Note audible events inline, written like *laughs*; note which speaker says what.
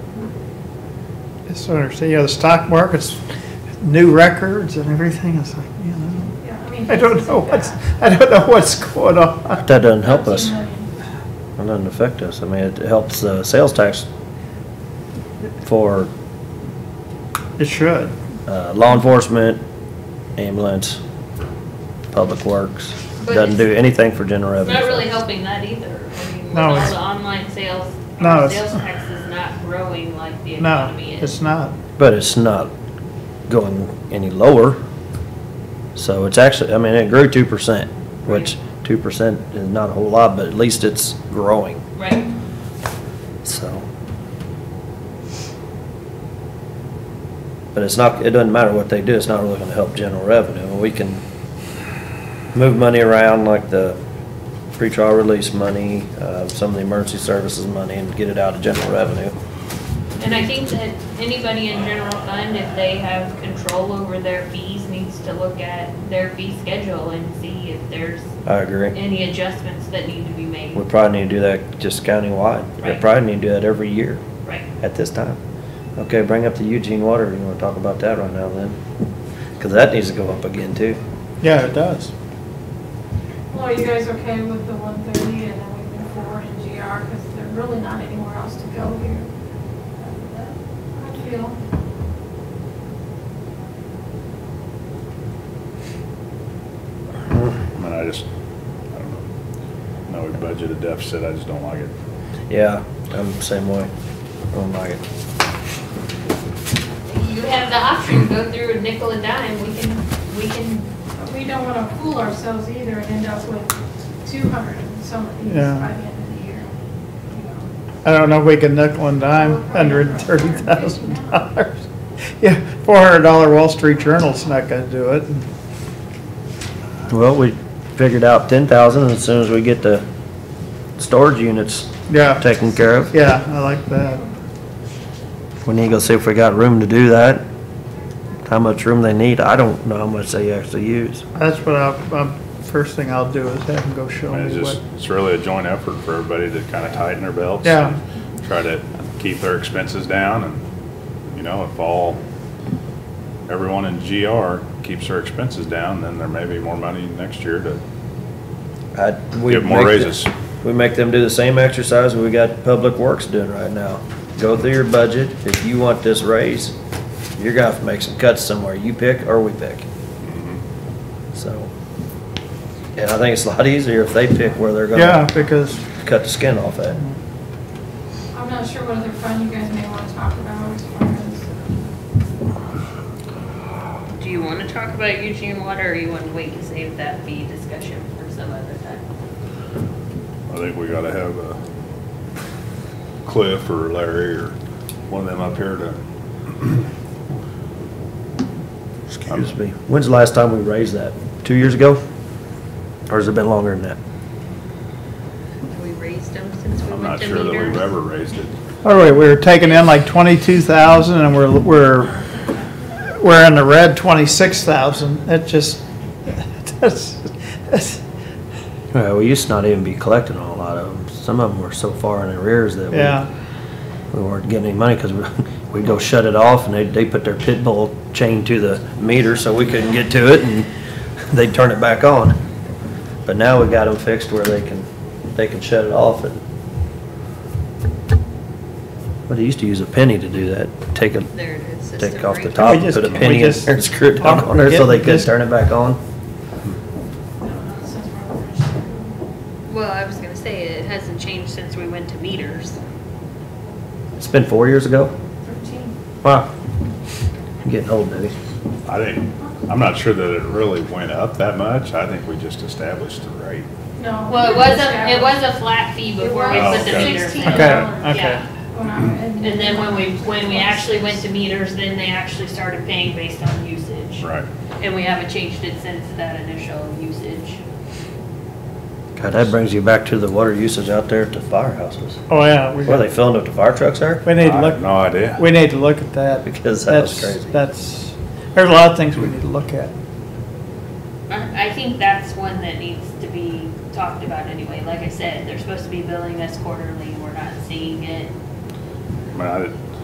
Speaker 1: It's sort of, you know, the stock market's new records and everything, it's like, you know,
Speaker 2: Yeah, I mean,
Speaker 1: I don't
Speaker 2: cases
Speaker 1: know
Speaker 2: like
Speaker 1: what's,
Speaker 2: that.
Speaker 1: I don't know what's going on.
Speaker 3: That doesn't help us.
Speaker 2: 13
Speaker 3: That
Speaker 2: million.
Speaker 3: doesn't affect us. I mean, it helps the sales tax for
Speaker 1: It should.
Speaker 3: uh, law enforcement, ambulance, public works.
Speaker 4: But
Speaker 3: Doesn't do anything for general
Speaker 4: It's
Speaker 3: revenue.
Speaker 4: not really helping that either. I mean, with
Speaker 1: No,
Speaker 4: all
Speaker 1: it's-
Speaker 4: the online sales,
Speaker 1: No,
Speaker 4: our
Speaker 1: it's-
Speaker 4: sales tax is not growing like the
Speaker 1: No,
Speaker 4: economy
Speaker 1: it's
Speaker 4: is.
Speaker 1: not.
Speaker 3: But it's not going any lower. So it's actually, I mean, it grew two percent, which two percent is not a whole lot, but at least it's growing,
Speaker 4: Right.
Speaker 3: so. But it's not, it doesn't matter what they do, it's not really gonna help general revenue. And We can move money around like the pretrial release money, uh, some of the emergency services money and get it out of general revenue.
Speaker 4: And I think that anybody in general fund, if they have control over their fees, needs to look at their fee schedule and see if there's
Speaker 3: I agree.
Speaker 4: any adjustments that need to be made.
Speaker 3: We probably need to do that just countywide. We
Speaker 4: Right.
Speaker 3: probably need to do that every year
Speaker 4: Right.
Speaker 3: at this time. Okay, bring up the Eugene water, you wanna talk about that right now then? Cause that needs to go up again too.
Speaker 1: Yeah, it does.
Speaker 2: Well, are you guys okay with the one thirty and then we move forward in GR, because there's really not anywhere else to go here? I feel,
Speaker 5: I mean, I just, I don't know. No, we budgeted deficit, I just don't like it.
Speaker 3: Yeah, I'm the same way. I don't like it.
Speaker 4: You have the option, go through a nickel and dime, we can, we can,
Speaker 2: but we don't wanna fool ourselves either and end up with two hundred and some of these by the
Speaker 1: Yeah.
Speaker 2: end of the year. you know.
Speaker 1: I don't know if we can nickel and dime hundred and thirty thousand dollars. Yeah, four hundred dollar Wall Street Journal's not gonna do it.
Speaker 3: Well, we figured out ten thousand as soon as we get the storage units
Speaker 1: Yeah,
Speaker 3: taken care of.
Speaker 1: yeah, I like that.
Speaker 3: We need to go see if we got room to do that. How much room they need. I don't know how much they actually use.
Speaker 1: That's what I'll, um, first thing I'll do is have them go show
Speaker 5: I mean, it's
Speaker 1: me
Speaker 5: just,
Speaker 1: what.
Speaker 5: it's really a joint effort for everybody to kind of tighten their belts.
Speaker 1: Yeah.
Speaker 5: and Try to keep their expenses down and, you know, if all, everyone in GR keeps their expenses down, then there may be more money next year to
Speaker 3: I- we
Speaker 5: Give more
Speaker 3: make the-
Speaker 5: raises.
Speaker 3: We make them do the same exercise we got Public Works doing right now. Go through your budget, if you want this raise, you're gonna have to make some cuts somewhere, you pick or we pick. So, and I think it's a lot easier if they pick where they're
Speaker 1: Yeah,
Speaker 3: gonna
Speaker 1: because
Speaker 3: cut the skin off at.
Speaker 2: I'm not sure what other fund you guys may wanna talk about as far as.
Speaker 4: do you want to talk about Eugene water or you want to wait and save that fee discussion for some other time?
Speaker 5: I think we gotta have uh, Cliff or Larry or one of them up here to,
Speaker 3: Excuse me, when's the last time we raised that? Two years ago? Or has it been longer than that?
Speaker 4: Have we raised them since we
Speaker 5: I'm
Speaker 4: went
Speaker 5: not
Speaker 4: to
Speaker 5: sure that we've
Speaker 4: meters?
Speaker 5: ever raised it.
Speaker 1: All right, we're taking in like twenty-two thousand and we're, we're, we're in the red twenty-six thousand. It just, *laughs* that's, that's,
Speaker 3: Well, we used to not even be collecting on a lot of them, some of them were so far in arrears that we
Speaker 1: yeah,
Speaker 3: we *laughs* weren't getting any money because we'd go shut it off and they, they put their pit bull chain to the meter so we couldn't get to it and *laughs* they'd turn it back on. But now we got them fixed where they can, they can shut it off and. But they used to use a penny to do that, take a,
Speaker 4: There it is. system
Speaker 3: take off the
Speaker 4: rate.
Speaker 3: top,
Speaker 1: We just-
Speaker 3: put a
Speaker 1: we
Speaker 3: penny in
Speaker 1: just-
Speaker 3: there and screw it down on there so they could turn it back on.
Speaker 2: since we're finished.
Speaker 4: Well, I was gonna say, it hasn't changed since we went to meters.
Speaker 3: It's been four years ago?
Speaker 2: 13.
Speaker 3: Wow. Getting old, baby.
Speaker 5: I think, I'm not sure that it really went up that much. I think we just established the rate.
Speaker 2: No.
Speaker 4: Well, it was a, it was a flat fee before we
Speaker 5: was
Speaker 4: put the meters in.
Speaker 2: $16.
Speaker 1: Okay, okay.
Speaker 4: Yeah.
Speaker 2: And
Speaker 4: And then when we, when we actually went to meters, then they actually started paying based on usage.
Speaker 5: Right.
Speaker 4: And we haven't changed it since that initial usage.
Speaker 3: God, that brings you back to the water usage out there at the firehouses.
Speaker 1: oh yeah. we
Speaker 3: What, are they filling up the fire trucks there? *laughs*
Speaker 1: We need to
Speaker 5: I
Speaker 1: look.
Speaker 5: have no idea.
Speaker 1: We need to look at that.
Speaker 3: Because that was
Speaker 1: That's-
Speaker 3: crazy.
Speaker 1: That's, there's a lot of things we need to look at.
Speaker 4: I I think that's one that needs to be talked about anyway. Like I said, they're supposed to be billing us quarterly. We're not seeing it.
Speaker 5: I mean, I didn't-